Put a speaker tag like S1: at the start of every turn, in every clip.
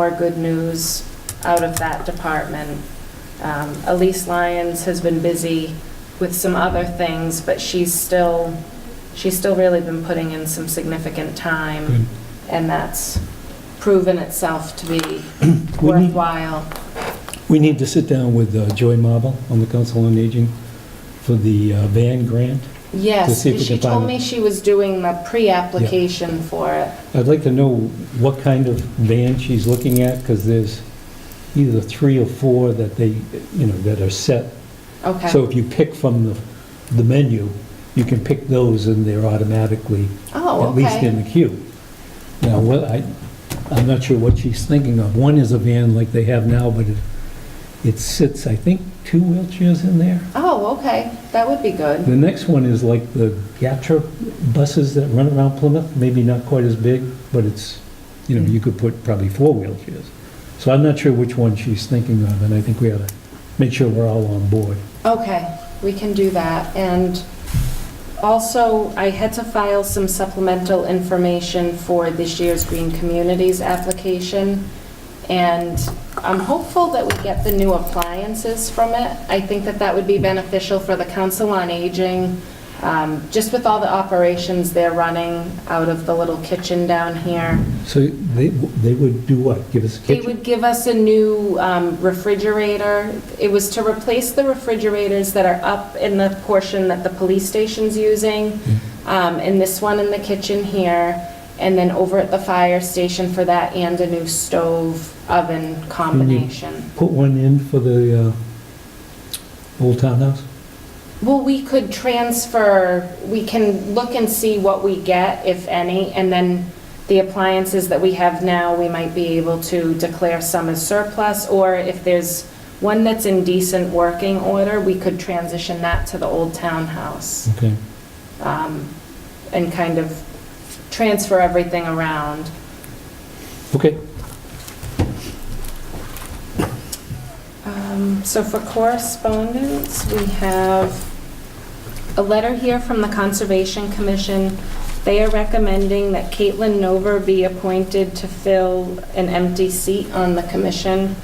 S1: more good news out of that department. Um, Elise Lyons has been busy with some other things, but she's still, she's still really been putting in some significant time,
S2: Good.
S1: and that's proven itself to be
S2: We need-
S1: worthwhile.
S2: We need to sit down with uh, Joy Marble on the Council on Aging for the uh, van grant. To
S1: Yes,
S2: see if we
S1: she
S2: can find
S1: told
S2: it.
S1: me she was doing the pre-application for it.
S2: I'd like to know what kind of van she's looking at, because there's either three or four that they, you know, that are set. So
S1: Okay.
S2: if you pick from the, the menu, you can pick those and they're automatically,
S1: Oh,
S2: at least
S1: okay.
S2: in the queue. Now, what I, I'm not sure what she's thinking of. One is a van like they have now, but it, it sits, I think, two wheelchairs in there.
S1: Oh, okay, that would be good.
S2: The next one is like the Gatra buses that run around Plymouth, maybe not quite as big, but it's, you know, you could put probably four wheelchairs. So I'm not sure which one she's thinking of, and I think we ought to make sure we're all on board.
S1: Okay, we can do that. And also, I had to file some supplemental information for this year's Green Communities application, and I'm hopeful that we get the new appliances from it. I think that that would be beneficial for the Council on Aging, um, just with all the operations they're running out of the little kitchen down here.
S2: So they, they would do what? Give us a
S1: They
S2: kitchen?
S1: would give us a new um, refrigerator. It was to replace the refrigerators that are up in the portion that the police station's using, um, and this one in the kitchen here, and then over at the fire station for that, and a new stove oven combination.
S2: Put one in for the uh, Old Townhouse?
S1: Well, we could transfer, we can look and see what we get, if any, and then the appliances that we have now, we might be able to declare some as surplus, or if there's one that's in decent working order, we could transition that to the old townhouse
S2: Okay.
S1: um, and kind of transfer everything around.
S2: Okay.
S1: Um, So for correspondence, we have a letter here from the Conservation Commission. They are recommending that Caitlin Nover be appointed to fill an empty seat on the commission,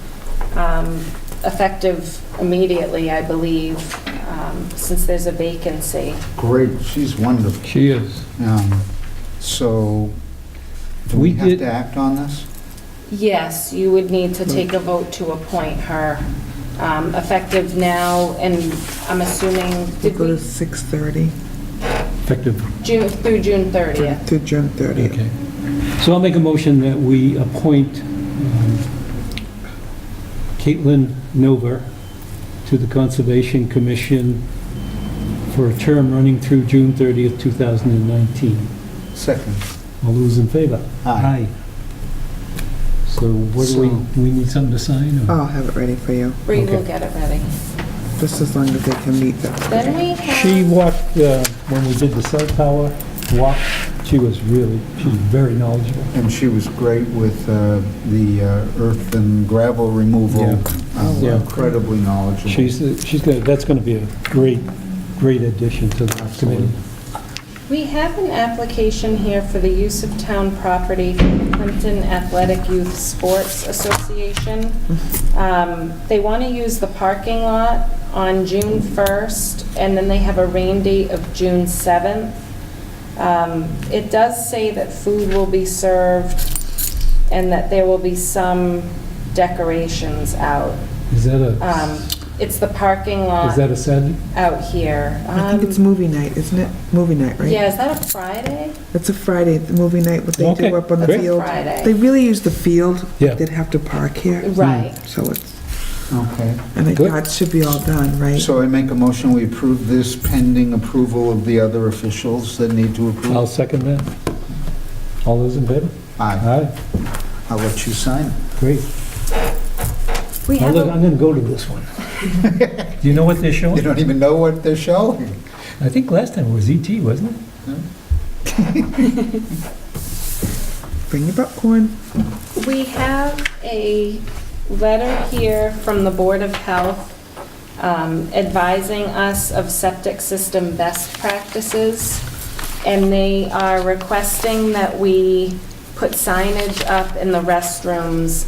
S1: um, effective immediately, I believe, um, since there's a vacancy.
S3: Great, she's wonderful.
S2: She is.
S3: Um, So, do
S2: We
S3: we have
S2: did-
S3: to act on this?
S1: Yes, you would need to take a vote to appoint her, um, effective now, and I'm assuming,
S4: We
S1: did
S4: go to
S1: we,
S4: 6:30
S2: Effective
S1: June, through June 30th?
S4: to June 30th.
S2: Okay. So I'll make a motion that we appoint um, Caitlin Nover to the Conservation Commission for a term running through June 30th, 2019.
S3: Second.
S2: All those in favor?
S3: Aye.
S2: So what do we, we need something to sign? or-
S4: I'll have it ready for you,
S1: We will
S2: Okay.
S1: get it ready.
S4: just as long as they can meet
S1: Then
S4: that.
S1: we
S2: She
S1: have,
S2: walked, uh, when we did the cell tower walk, she was really, she was very knowledgeable.
S3: And she was great with uh, the uh, earth and gravel removal.
S2: Yeah. Oh,
S3: Um,
S2: Yeah.
S3: Incredibly knowledgeable.
S2: She's, she's gonna, that's gonna be a great, great addition to the committee.
S1: we have an application here for the use of town property for the Clinton Athletic Youth Sports Association.
S2: Mm-hmm.
S1: Um, They want to use the parking lot on June 1st, and then they have a rain date of June 7th. Um, It does say that food will be served and that there will be some decorations out.
S2: Is that a,
S1: Um, It's the parking lot.
S2: is that a Saturday?
S1: out here.
S4: I think it's
S1: Um,
S4: movie night, isn't it? Movie night, right?
S1: Yeah, is that a Friday?
S4: It's a Friday, the movie night, what they
S2: Okay,
S4: do up on the
S2: great.
S4: field.
S1: Friday.
S4: They really use the field.
S2: Yeah.
S4: They'd have to park here,
S1: Right.
S4: so it's,
S3: Okay.
S4: and I
S2: Good.
S4: thought it should be all done, right?
S3: So I make a motion, we approve this pending approval of the other officials that need to approve.
S2: I'll second that. All those in favor?
S3: Aye.
S2: Aye,
S3: I'll let you sign. it.
S2: great.
S1: We
S2: I'll
S1: have,
S2: let-
S1: a-
S2: I'm going to go to this one. Do you know what they're
S3: You
S2: showing?
S3: don't even know what they're showing.
S2: I think last time it was ET, wasn't it?
S4: Bring your popcorn.
S1: we have a letter here from the Board of Health um, advising us of septic system best practices, and they are requesting that we put signage up in the restrooms